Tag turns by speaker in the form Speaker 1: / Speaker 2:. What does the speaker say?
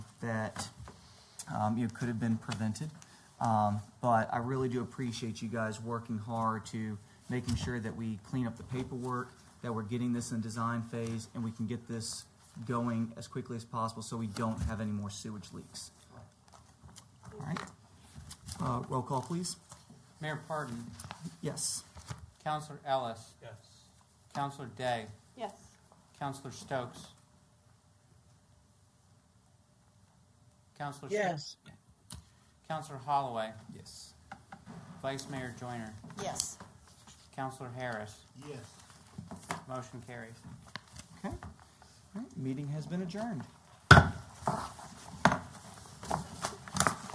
Speaker 1: that um, you know, could have been prevented. Um, But I really do appreciate you guys working hard to making sure that we clean up the paperwork, that we're getting this in design phase, and we can get this going as quickly as possible so we don't have any more sewage leaks. All right. Uh, Roll call, please.
Speaker 2: Mayor Pardon,
Speaker 1: Yes.
Speaker 2: Counselor Ellis,
Speaker 3: Yes.
Speaker 2: Counselor Day,
Speaker 4: Yes.
Speaker 2: Counselor Stokes. Counselor Stokes.
Speaker 5: yes,
Speaker 2: Counselor Holloway,
Speaker 1: Yes.
Speaker 2: Vice Mayor Joyner,
Speaker 4: Yes.
Speaker 2: Counselor Harris.
Speaker 3: Yes.
Speaker 2: Motion carries.
Speaker 1: Okay. All right, Meeting has been adjourned.